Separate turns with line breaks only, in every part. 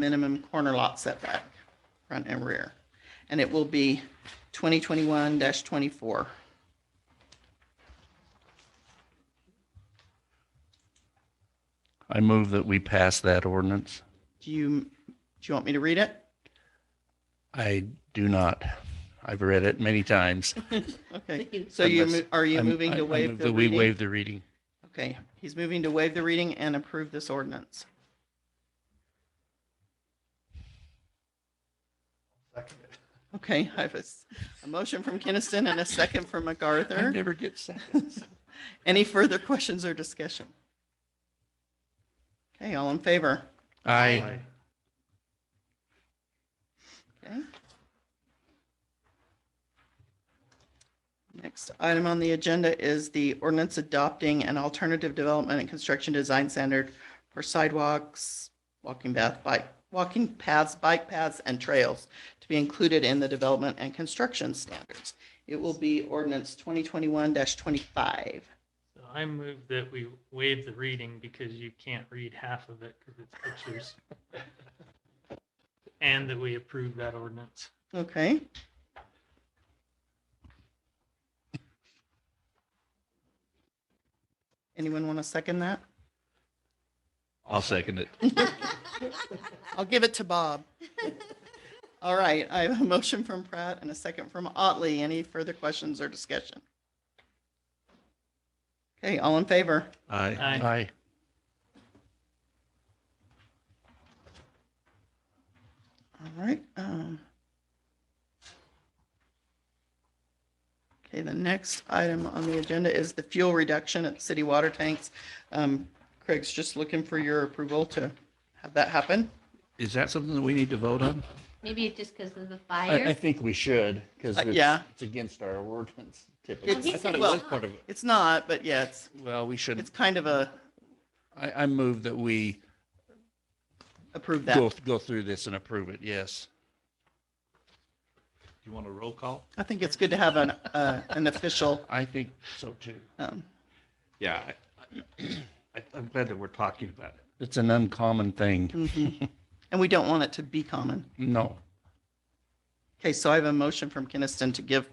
minimum corner lot setback, front and rear. And it will be 2021-24.
I move that we pass that ordinance.
Do you, do you want me to read it?
I do not. I've read it many times.
Okay, so you,
Unless-
mo- are you
I'm-
moving
I- I
to waive
move
the
that We
reading?
waive the reading.
Okay, he's moving to waive the reading and approve this ordinance. Okay, I have a, s- a motion from Kinnison and a second from
I
MacArthur.
never get seconds.
Any further questions or discussion? Okay, all in favor?
Aye.
Okay. Next item on the agenda is the ordinance adopting an alternative development and construction design standard for sidewalks, walking path, bike, walking paths, bike paths, and trails to be included in the development and construction standards. It will be ordinance twenty twenty-one twenty-five.
So I move that we waive the reading because you can't read half of it because it's pictures. And that we approve that ordinance.
Okay. Anyone want to second that?
I'll second it.
I'll give it to Bob. All right, I have a motion from Pratt and a second from Otley. Any further questions or discussion? Okay, all in favor?
Aye.
Aye.
Aye.
All right. um, Okay, the next item on the agenda is the fuel reduction at city water tanks. Um, Craig's just looking for your approval to have that happen.
Is that something that we need to vote on?
Maybe it's just because of the
I, I
fire.
think we should, because
Uh,
it's,
yeah.
it's against our ordinance typically.
It's-
I thought it
well-
was part of it.
It's not, but yeah, it's,
Well, we should,
it's kind of a
I, I move that we
approve
go,
that.
go through this and approve it, yes.
You want a roll call?
I think it's good to have an, uh, an official.
I think so too.
um,
Yeah. I- I, I'm glad that we're talking about it.
It's an uncommon thing.
mhm. And we don't want it to be common.
No.
Okay, so I have a motion from Kinnison to give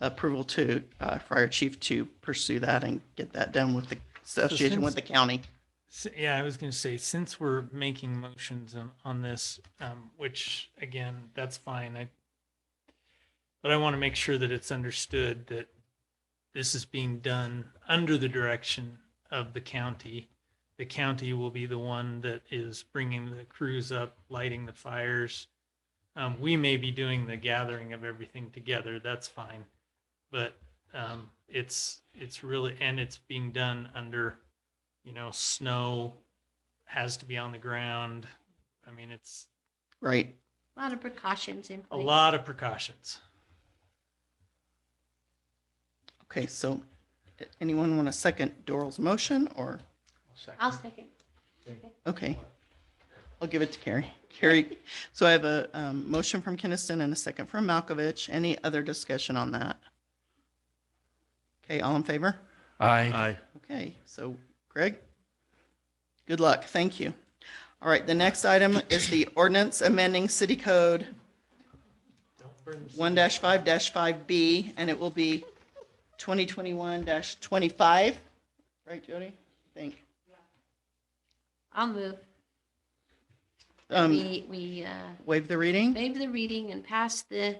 approval to uh, Fire Chief to pursue that and get that done with the association with the county.
S- Yeah, I was going to say, since we're making motions on, on this, um, which again, that's fine. I, but I want to make sure that it's understood that this is being done under the direction of the county. The county will be the one that is bringing the crews up, lighting the fires. Um, we may be doing the gathering of everything together. That's fine. But, um, it's, it's really, and it's being done under you know, snow has to be on the ground. I mean, it's
Right.
A lot of precautions in
a
place.
lot of precautions.
Okay, so anyone want to second Doral's motion or,
I'll second.
okay. I'll give it to Carrie. Carrie, so I have a um, motion from Kinnison and a second from Malkovich. Any other discussion on that? Okay, all in favor?
Aye.
Aye.
Okay, so Greg, good luck. Thank you. All right, the next item is the ordinance amending city code
Don't burn the
one five five B, and it will be twenty twenty-one twenty-five. Right, Jody? Think.
I'll move.
Um,
We, we uh,
waive the reading?
waive the reading and pass the,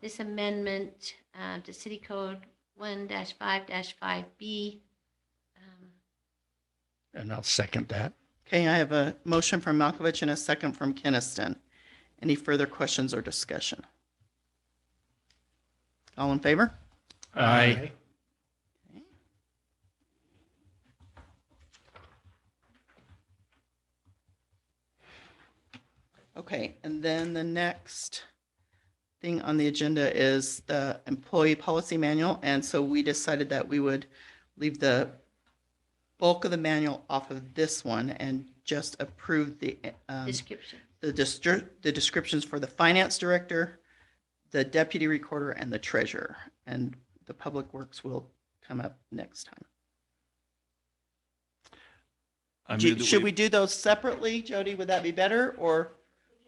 this amendment uh, to City Code 1-5-5B. um,
And I'll second that.
Okay, I have a motion from Malkovich and a second from Kinnison. Any further questions or discussion? All in favor?
Aye.
Okay, and then the next thing on the agenda is the employee policy manual. And so we decided that we would leave the bulk of the manual off of this one and just approve the, um,
Description.
the distri- the descriptions for the finance director, the deputy recorder and the treasurer. And the public works will come up next time.
I
Do-
move that
Should we do those separately, Jody? Would that be better or?